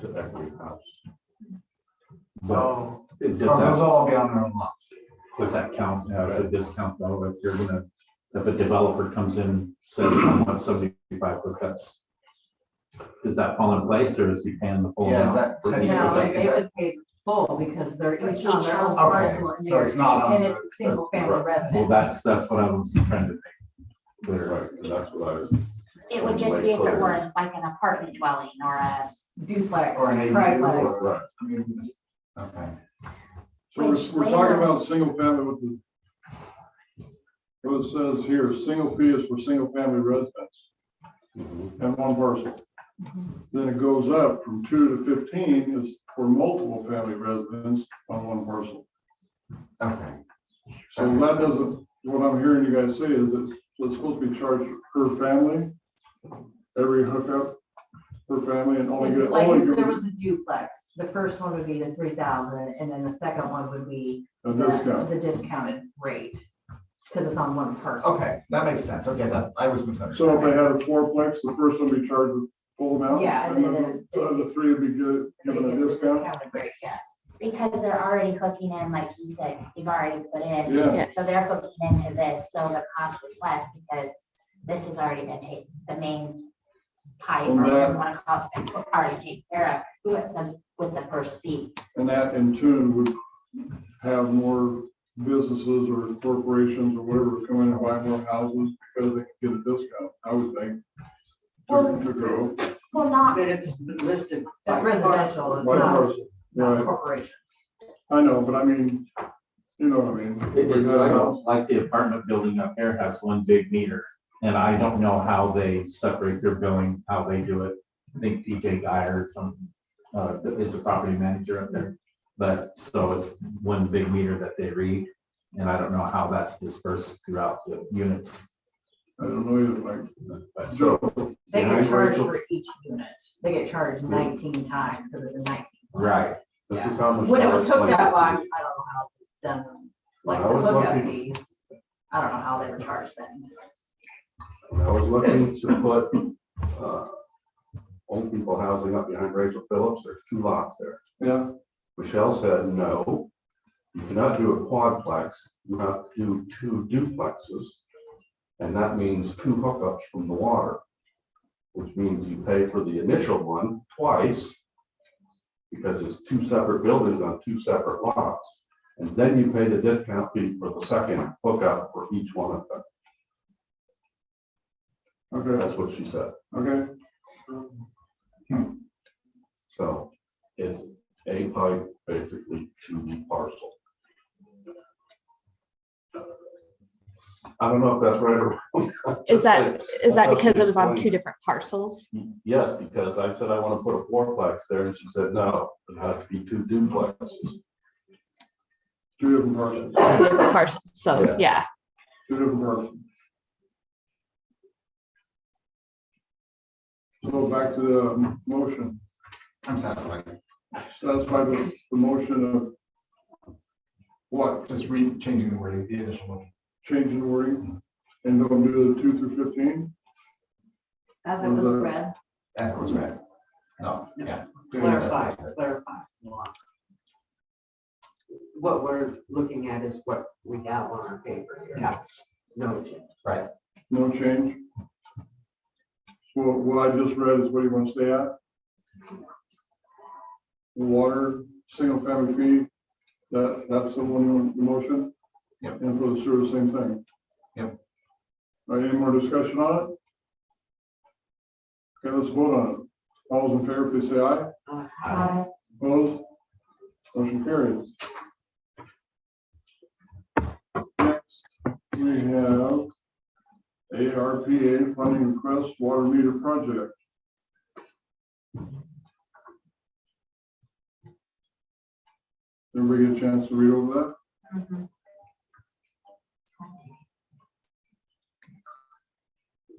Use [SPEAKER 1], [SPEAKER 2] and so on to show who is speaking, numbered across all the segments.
[SPEAKER 1] to every house. But
[SPEAKER 2] So
[SPEAKER 1] it
[SPEAKER 2] so Oh, those
[SPEAKER 1] does
[SPEAKER 2] will
[SPEAKER 1] that,
[SPEAKER 2] all be on their own lots.
[SPEAKER 1] does that count as a discount though, if you're gonna, if a developer comes in, says, I want seventy-five hookups? Does that fall in place or is he paying the full?
[SPEAKER 2] Yeah, is
[SPEAKER 1] amount
[SPEAKER 2] that
[SPEAKER 1] for each
[SPEAKER 2] technically-
[SPEAKER 3] No,
[SPEAKER 1] hookup?
[SPEAKER 2] like, is
[SPEAKER 3] they
[SPEAKER 2] that-
[SPEAKER 3] would pay full because they're each on their own
[SPEAKER 4] Okay,
[SPEAKER 3] parcel and
[SPEAKER 2] so it's
[SPEAKER 3] theirs,
[SPEAKER 2] not on
[SPEAKER 3] and it's
[SPEAKER 2] the-
[SPEAKER 3] single family
[SPEAKER 1] Right. Well,
[SPEAKER 3] residence.
[SPEAKER 1] that's, that's what I was trying to make clear.
[SPEAKER 5] Right, and that's what I was.
[SPEAKER 4] It would just be if it were like an apartment dwelling or a,
[SPEAKER 3] Duplex,
[SPEAKER 2] Or an ADU
[SPEAKER 3] triplex.
[SPEAKER 2] or-
[SPEAKER 5] Right.
[SPEAKER 2] I mean, this- Okay.
[SPEAKER 5] So
[SPEAKER 4] Which
[SPEAKER 5] we're, we're
[SPEAKER 4] they
[SPEAKER 5] talking
[SPEAKER 4] have-
[SPEAKER 5] about single family with the. What it says here, single fee is for single family residents and one person.
[SPEAKER 3] Mm-hmm.
[SPEAKER 5] Then it goes up from two to fifteen is for multiple family residents on one parcel.
[SPEAKER 2] Okay.
[SPEAKER 5] So that doesn't, what I'm hearing you guys say is that it's supposed to be charged per family. Every hookup per family and only get,
[SPEAKER 3] Like
[SPEAKER 5] only
[SPEAKER 3] if there
[SPEAKER 5] get
[SPEAKER 3] was a duplex, the first one would be the three thousand and then the second one would be
[SPEAKER 5] a
[SPEAKER 3] the
[SPEAKER 5] discount.
[SPEAKER 3] the discounted rate. Because it's on one parcel.
[SPEAKER 2] Okay, that makes sense. Okay, that's, I was
[SPEAKER 5] So if they
[SPEAKER 2] misunderstanding.
[SPEAKER 5] had a fourplex, the first one would be charged with full amount.
[SPEAKER 3] Yeah, and
[SPEAKER 5] And
[SPEAKER 3] then
[SPEAKER 5] then the
[SPEAKER 3] it-
[SPEAKER 5] other three would be gi-
[SPEAKER 3] They
[SPEAKER 5] given
[SPEAKER 3] get the
[SPEAKER 5] a discount.
[SPEAKER 3] discounted rate, yes.
[SPEAKER 4] because they're already hooking in, like he said, they've already put in.
[SPEAKER 5] Yeah,
[SPEAKER 4] So they're hooking into this, so the cost is less because this has already been taken, the main pipe or
[SPEAKER 5] And
[SPEAKER 4] whatever
[SPEAKER 5] that-
[SPEAKER 4] you want to call it, has been already taken care of with the, with the first fee.
[SPEAKER 5] and that in turn would have more businesses or corporations or whatever come in and buy more houses because they can get a discount, I would think.
[SPEAKER 4] Well-
[SPEAKER 5] To to grow.
[SPEAKER 4] Well, not,
[SPEAKER 6] That it's listed.
[SPEAKER 3] That's residential, it's
[SPEAKER 5] One
[SPEAKER 3] not,
[SPEAKER 5] person.
[SPEAKER 3] not
[SPEAKER 5] Right,
[SPEAKER 3] corporations.
[SPEAKER 5] I know, but I mean, you know what I mean.
[SPEAKER 1] It is, I don't, like the apartment building up here has one big meter, and I don't know how they separate their billing, how they do it. I think PJ Guy or some, uh, is the property manager up there, but, so it's one big meter that they read. And I don't know how that's dispersed throughout the units,
[SPEAKER 5] I don't know either,
[SPEAKER 1] but.
[SPEAKER 5] like, Joe,
[SPEAKER 3] They
[SPEAKER 1] Yeah, I
[SPEAKER 3] get
[SPEAKER 1] agree.
[SPEAKER 3] charged for each unit. They get charged nineteen times because it's a nineteen.
[SPEAKER 1] Right.
[SPEAKER 7] This is how much.
[SPEAKER 3] When it was hooked up, I, I
[SPEAKER 7] on.
[SPEAKER 3] don't know how it's done, like
[SPEAKER 7] When I
[SPEAKER 3] the
[SPEAKER 7] was
[SPEAKER 3] hookup
[SPEAKER 7] looking-
[SPEAKER 3] fees, I don't know how they were charged then.
[SPEAKER 7] I was looking to put, uh, old people housing up behind Rachel Phillips, there's two lots there.
[SPEAKER 5] yeah,
[SPEAKER 7] Michelle said, no, you cannot do a quadplex, you have to do two duplexes. And that means two hookups from the water, which means you pay for the initial one twice. Because it's two separate buildings on two separate lots. And then you pay the discount fee for the second hookup for each one of them.
[SPEAKER 5] okay,
[SPEAKER 7] That's what she said.
[SPEAKER 5] okay,
[SPEAKER 7] So it's a pipe basically to the parcel. I don't know if that's right or. wrong.
[SPEAKER 8] Is that, is that
[SPEAKER 7] That's
[SPEAKER 8] because it was on
[SPEAKER 7] explained.
[SPEAKER 8] two different parcels?
[SPEAKER 7] Yes, because I said I want to put a fourplex there and she said, no, it has to be two duplexes.
[SPEAKER 5] two different parcels,
[SPEAKER 8] Different Parcels, so,
[SPEAKER 7] Yeah.
[SPEAKER 8] yeah,
[SPEAKER 5] two different parcels. So back to the um, motion.
[SPEAKER 2] I'm satisfied.
[SPEAKER 5] satisfied with the motion of what,
[SPEAKER 2] Just re, changing the wording, the initial one.
[SPEAKER 5] changing the wording, and don't do the two through fifteen?
[SPEAKER 6] As
[SPEAKER 5] it was
[SPEAKER 6] read.
[SPEAKER 2] That was right. No, yeah.
[SPEAKER 6] Clarify, clarify. What we're looking at is what we have on our paper here.
[SPEAKER 2] Yeah.
[SPEAKER 6] No change.
[SPEAKER 5] No change? Well, what I just read is what you want to stay at? Water, single family fee, that, that's the one you want, the motion?
[SPEAKER 2] Yep.
[SPEAKER 5] And for the sewer, same thing?
[SPEAKER 2] Yep.
[SPEAKER 5] All right, any more discussion on it? Okay, let's vote on it. All those in favor, please say aye.
[SPEAKER 6] Uh,
[SPEAKER 2] Aye.
[SPEAKER 5] Opposed? Motion carries. Next, we have ARPA funding request water meter project. Everybody get a chance to read over that?
[SPEAKER 4] Mhm.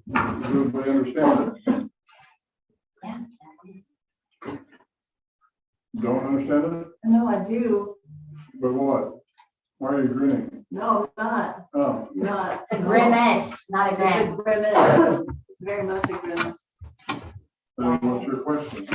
[SPEAKER 5] Does everybody understand it?
[SPEAKER 4] yeah.
[SPEAKER 5] Don't understand it?
[SPEAKER 3] No, I do,
[SPEAKER 5] But what? Why are you grinning?
[SPEAKER 3] no, not,
[SPEAKER 5] Oh,
[SPEAKER 3] not.
[SPEAKER 4] It's a grimace, not a grin.
[SPEAKER 3] grimace, it's very much a grimace.
[SPEAKER 5] And what's your question?